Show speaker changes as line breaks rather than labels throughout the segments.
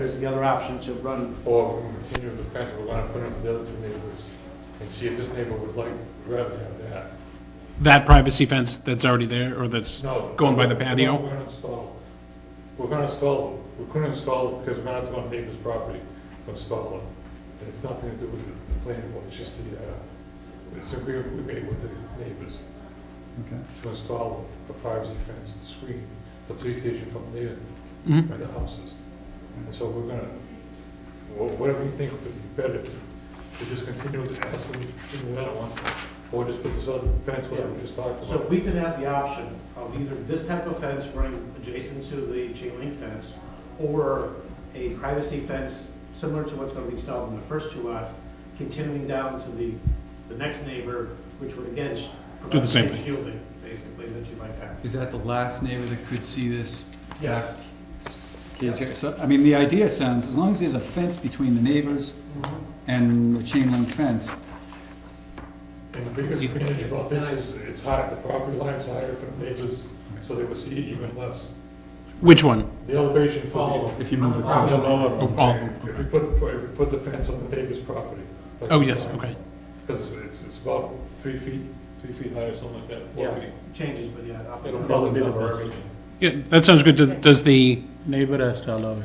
the other option to run,
Or we can continue with the fence, we're gonna put in for the other two neighborhoods, and see if this neighbor would like, rather have that.
That privacy fence that's already there, or that's,
No.
Going by the
we're-
patio?
We're gonna install, we're gonna install, we couldn't install it because we're gonna have to go on neighbor's property to install it. And it's nothing to do with the planning board, it's just the, uh, it's agreement we made with the neighbors
Okay.
to install the privacy fence, the screen, the police station from there,
Mhm.
by the houses. And so we're gonna, wha- whatever you think would be better, to just continue with the, as we do that one, or just put this other fence, whatever we just talked
so
about.
we could have the option of either this type of fence running adjacent to the chain link fence, or a privacy fence similar to what's gonna be installed in the first two lots, continuing down to the, the next neighbor, which would again. sh-
Do the same
provide
thing.
Shielding, basically, that you might have.
Is that the last neighbor that could see this?
Yes.
Okay, Jerry, So, I mean, the idea sounds, as long as there's a fence between the neighbors and the chain link fence,
And the biggest advantage about this is it's higher, the property line's higher from neighbors, so they will see even less.
which one?
The elevation for the.
if you move it
Oh,
Probably
closer.
lower.
Oh, oh,
If we put, the- if we put the fence on the neighbor's property. like
Oh,
we
yes,
talked,
okay.
Because it's- it's, it's about three feet, three feet high or something like that, four
Yeah.
feet.
Changes, but yeah. I'll-
It'll probably be the best.
Yeah, that sounds good. Does- Does the,
Neighbor has to allow it.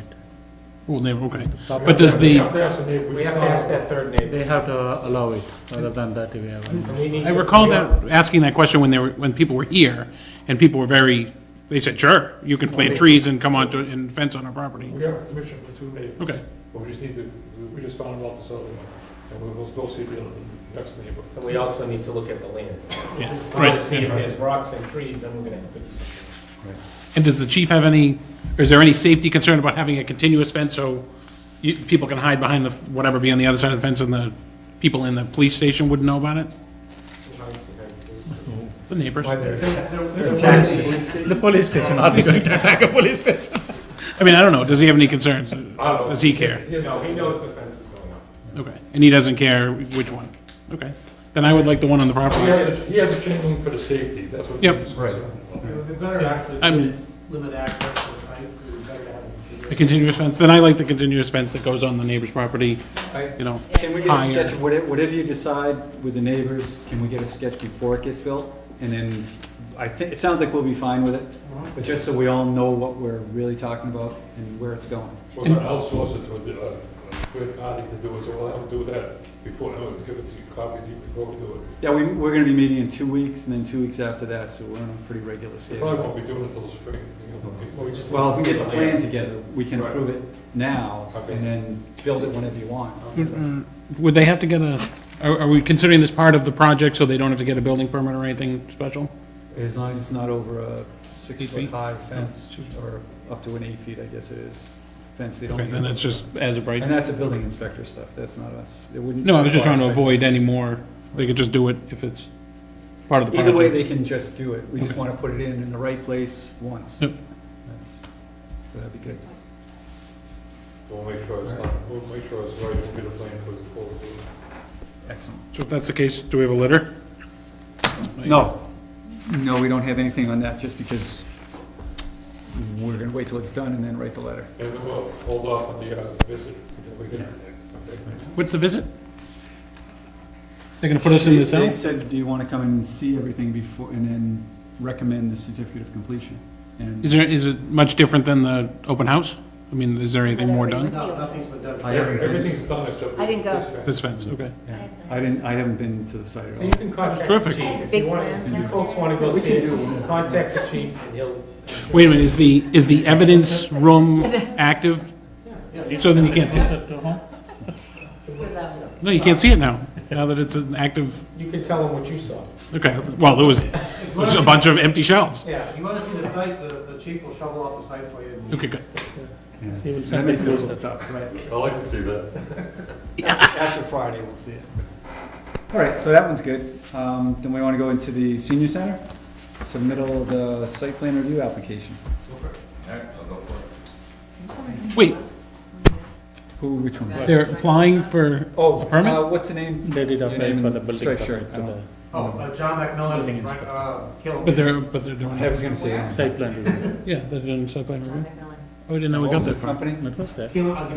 well, never, okay. Uh, But does
We
the,
have to ask the neighbor.
We have to ask that third neighbor.
They have to allow it, other than that we have.
And we need
I
to-
recall that, asking that question when they were, when people were here, and people were very, they said, sure, you can plant trees and come onto, and fence on our property.
We have permission for two neighbors.
Okay,
But we just need to, we just found out this other one, and we will go see the other, next neighbor.
And we also need to look at the land.
yeah,
If we want
right.
to see if there's rocks and trees, then we're gonna have to do something.
And does the chief have any, or is there any safety concern about having a continuous fence so you, people can hide behind the, whatever be on the other side of the fence and the people in the police station wouldn't know about it? The neighbors?
The police station, are they going to attack a police station?
I mean, I don't know, does he have any concerns?
I don't know.
Does he care?
No, he knows the fence is going up.
Okay, and he doesn't care which one? Okay, then I would like the one on the property.
He has, a- he has a chain link for the safety, that's what. he
Yep.
was concerned about.
It would be better actually
I
to
mean-
limit- limit access to the site, it would be better to have
A
it.
continuous fence, then I like the continuous fence that goes on the neighbor's property, you know.
Can we get a
Higher.
sketch, of whate- whatever you decide with the neighbors, can we get a sketch before it gets built? And then, I think, it sounds like we'll be fine with it, but just so we all know what we're really talking about and where it's going.
We're gonna outsource it to a, a third party to do it, so we'll have to do that before, no, give it to you, copy to you before we do it.
Yeah, we, we're gonna be meeting in two weeks, and then two weeks after that, so we're on a pretty regular
They
schedule.
probably won't be doing it till spring. you know, but we-
Well, if we get the plan together, we can
Right.
approve it now,
Okay.
and then build it whenever you want.
Uh, Would they have to get a, are, are we considering this part of the project so they don't have to get a building permit or anything special?
As long as it's not over a
Eight feet?
six-foot-high fence, or up to an eight-feet, I guess it is, fence, they don't.
Okay, then
need-
it's just as of
And
right.
that's a building inspector stuff, that's not us, it wouldn't.
No, I was just trying to
require
avoid any more, they could just do it if it's part of
a
the
site. Either
project.
way, they can just do it, we just
Okay.
wanna put it in, in the right place once.
Yep.
That's, so that'd be good.
We'll make sure it's not, we'll make sure it's right, we'll get a plan for it before we do it.
Excellent.
So if that's the case, do we have a letter?
No, no, we don't have anything on that, just because we're gonna wait till it's done and then write the letter.
And then we'll hold off on the, uh, visit until we get. okay.
What's the visit? They're gonna put us in
They-
the cell?
They said, do you wanna come and see everything before, and then recommend the certificate of completion? And
Is there, is it much different than the open house? I mean, is there anything more done?
No, nothing's been done.
I haven't been-
Everything's done except.
I didn't go.
this fence.
This fence, okay.
yeah, I didn't, I haven't been to the site at
So you
all.
can contact the
Terrific.
chief if
Big
you want,
plan.
if you folks want to go
We
see
can
it, contact the chief and he'll.
Wait a minute, is the, is the evidence room active? So then you can't see it? No, you can't see it now, now that it's an active,
You can tell him what you saw.
okay, that's- well, there was, there
If you
was a
wanna-
bunch of empty shelves.
Yeah, if you wanna see the site, the, the chief will shovel out the site for you. and-
Okay, good.
Yeah. That makes it a little tough, right?
I like to see that.
After Friday, we'll see it. All right, so that one's good. Um, Then we want to go into the senior center, submittal of the site plan review application.
Wait,
Who, which one?
they're applying for,
Oh,
A permit?
uh, what's the name?
They did
Your
apply
name
for
and
the building
striped
permit
shirt,
for
I
the
Oh, uh, John McMillan, Frank, uh, Caleb.
but they're, but they're doing,
don't- I was gonna say.
site plan review.
yeah, they're doing site plan review. Oh, I didn't know we got that far.
Company?
What was that?
Caleb, I'll give you